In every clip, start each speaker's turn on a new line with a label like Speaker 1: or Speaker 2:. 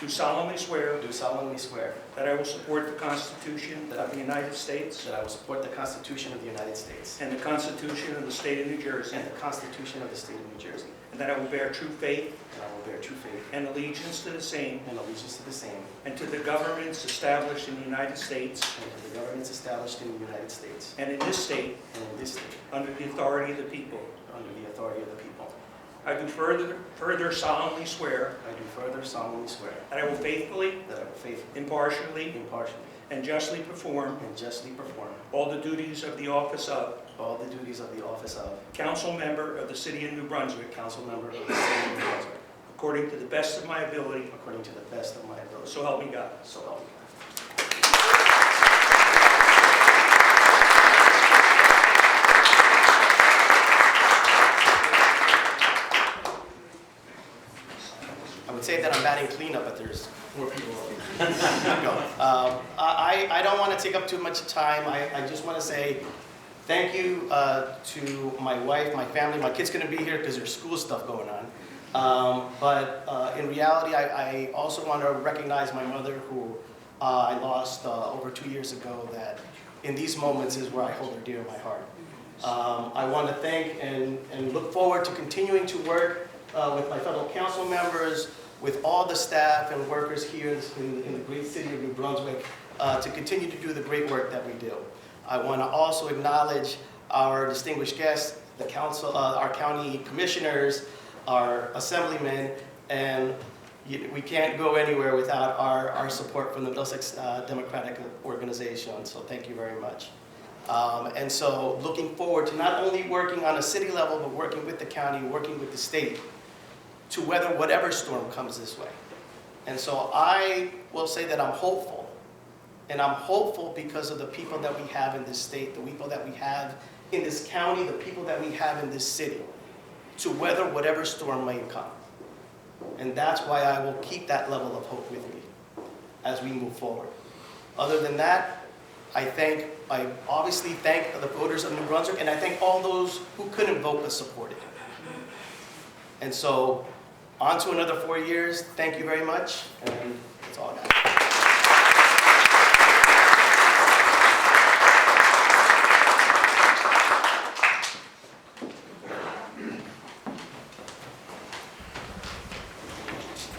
Speaker 1: do solemnly swear
Speaker 2: do solemnly swear
Speaker 1: that I will support the Constitution
Speaker 2: That I-
Speaker 1: of the United States
Speaker 2: that I will support the Constitution of the United States
Speaker 1: and the Constitution of the State of New Jersey,
Speaker 2: and the Constitution of the State of New Jersey,
Speaker 1: and that I will bear true faith
Speaker 2: and I will bear true faith
Speaker 1: and allegiance to the same
Speaker 2: and allegiance to the same
Speaker 1: and to the governments established in the United States
Speaker 2: and to the governments established in the United States
Speaker 1: and in this state
Speaker 2: and in this state
Speaker 1: under the authority of the people.
Speaker 2: under the authority of the people.
Speaker 1: I do further further solemnly swear
Speaker 2: I do further solemnly swear
Speaker 1: that I will faithfully,
Speaker 2: that I will faithfully,
Speaker 1: impartially,
Speaker 2: impartially,
Speaker 1: and justly perform
Speaker 2: and justly perform
Speaker 1: all the duties of the office of
Speaker 2: all the duties of the office of
Speaker 1: council member of the City of New Brunswick,
Speaker 2: council member of the City of New Brunswick
Speaker 1: according to the best of my ability,
Speaker 2: according to the best of my ability.
Speaker 1: so help me God.
Speaker 2: So help me God. I would say that I'm batting cleanup, but there's more people. No, um, I, I I don't want to take up too much time. I, I just want to say thank you uh, to my wife, my family. My kid's going to be here because there's school stuff going on. Um, But uh, in reality, I, I also want to recognize my mother, who uh, I lost uh, over two years ago, that in these moments is where I hold her dear in my heart. Um, I want to thank and, and look forward to continuing to work uh, with my fellow council members, with all the staff and workers here in, in the great city of New Brunswick, uh, to continue to do the great work that we do. I want to also acknowledge our distinguished guests, the council, uh, our county commissioners, our assemblymen, and you- we can't go anywhere without our, our support from the Middlesex uh, Democratic Organization, so thank you very much. Um, And so, looking forward to not only working on a city level, but working with the county, working with the state to weather whatever storm comes this way. And so I will say that I'm hopeful. And I'm hopeful because of the people that we have in this state, the people that we have in this county, the people that we have in this city, to weather whatever storm may come. And that's why I will keep that level of hope with me as we move forward. Other than that, I thank, I obviously thank the voters of New Brunswick, and I thank all those who couldn't vote but supported. And so, on to another four years. Thank you very much, and that's all I got.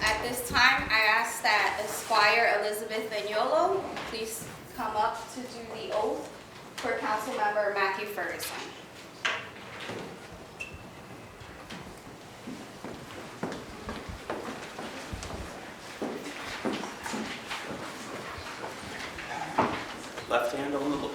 Speaker 3: At this time, I ask that Esquire Elizabeth Vignolo please come up to do the oath for Councilmember Matthew Ferguson.
Speaker 4: Left hand on the Lord.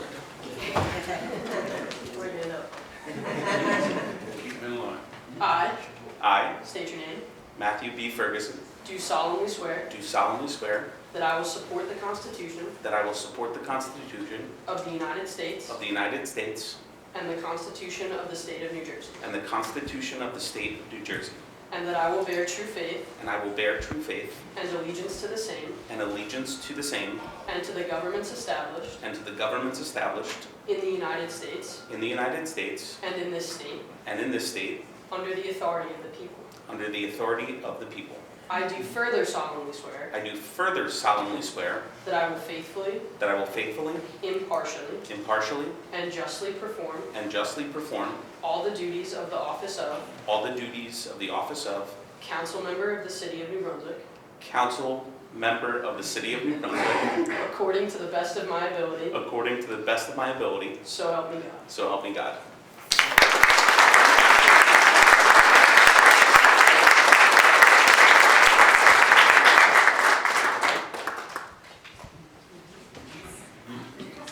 Speaker 4: Keep in line.
Speaker 5: I,
Speaker 4: I,
Speaker 5: state your name,
Speaker 4: Matthew B. Ferguson,
Speaker 5: do solemnly swear
Speaker 4: do solemnly swear
Speaker 5: that I will support the Constitution
Speaker 4: that I will support the Constitution
Speaker 5: of the United States
Speaker 4: of the United States
Speaker 5: and the Constitution of the State of New Jersey,
Speaker 4: and the Constitution of the State of New Jersey,
Speaker 5: and that I will bear true faith
Speaker 4: and I will bear true faith
Speaker 5: and allegiance to the same
Speaker 4: and allegiance to the same
Speaker 5: and to the governments established
Speaker 4: and to the governments established
Speaker 5: in the United States
Speaker 4: in the United States
Speaker 5: and in this state,
Speaker 4: and in this state
Speaker 5: under the authority of the people.
Speaker 4: under the authority of the people.
Speaker 5: I do further solemnly swear
Speaker 4: I do further solemnly swear
Speaker 5: that I will faithfully,
Speaker 4: that I will faithfully,
Speaker 5: impartially,
Speaker 4: impartially,
Speaker 5: and justly perform
Speaker 4: and justly perform
Speaker 5: all the duties of the office of
Speaker 4: all the duties of the office of
Speaker 5: council member of the City of New Brunswick
Speaker 4: council member of the City of New Brunswick
Speaker 5: according to the best of my ability,
Speaker 4: according to the best of my ability,
Speaker 5: so help me God.
Speaker 4: so help me God.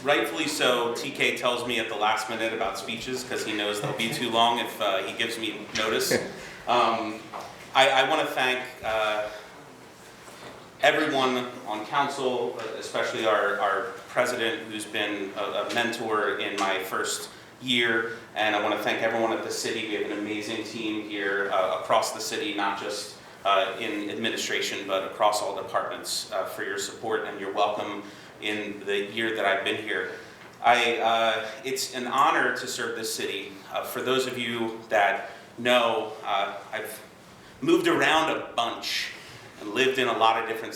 Speaker 4: Rightfully so, TK tells me at the last minute about speeches because he knows they'll be too long if uh, he gives me notice. Um, I, I want to thank uh, everyone on council, especially our, our president, who's been a a mentor in my first year. And I want to thank everyone at the city. We have an amazing team here uh, across the city, not just uh, in administration, but across all departments uh, for your support and your welcome in the year that I've been here. I, uh, it's an honor to serve this city. Uh, For those of you that know, uh, I've moved around a bunch and lived in a lot of different